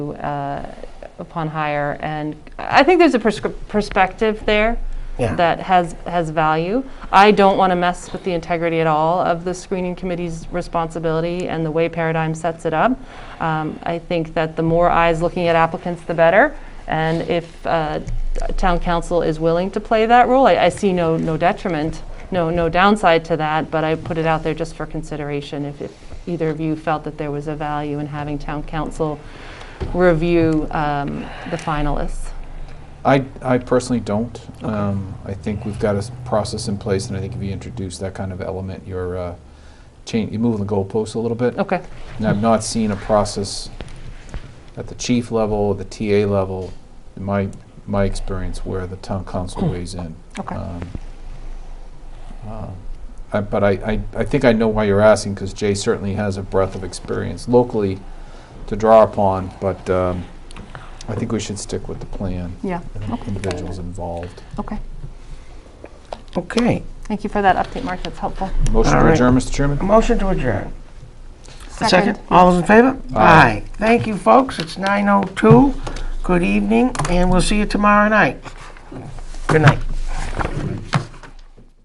uh, upon hire. And I think there's a prescri- perspective there Yeah. that has, has value. I don't want to mess with the integrity at all of the screening committee's responsibility and the way Paradigm sets it up. Um, I think that the more eyes looking at applicants, the better. And if uh, t- town council is willing to play that role, I, I see no, no detriment, no, no downside to that, but I put it out there just for consideration if, if either of you felt that there was a value in having town council review um, the finalists. I, I personally don't. Um, I think we've got a s- process in place, and I think if you introduce that kind of element, you're uh, change, you're moving the goalposts a little bit. Okay. And I've not seen a process at the chief level, the TA level, in my, my experience, where the town council weighs in. Okay. Um, um, I- But I, I, I think I know why you're asking, because Jay certainly has a breadth of experience locally to draw upon, but um, I think we should stick with the plan. Yeah. and the Individuals involved. Okay. Okay. Thank you for that update, Mark. That's helpful. Motion All to right. adjourn, Mr. Chairman? Motion to adjourn. All those in favor? Aye. Thank you, folks. It's 9:02. Good evening, and we'll see you tomorrow night. Good night.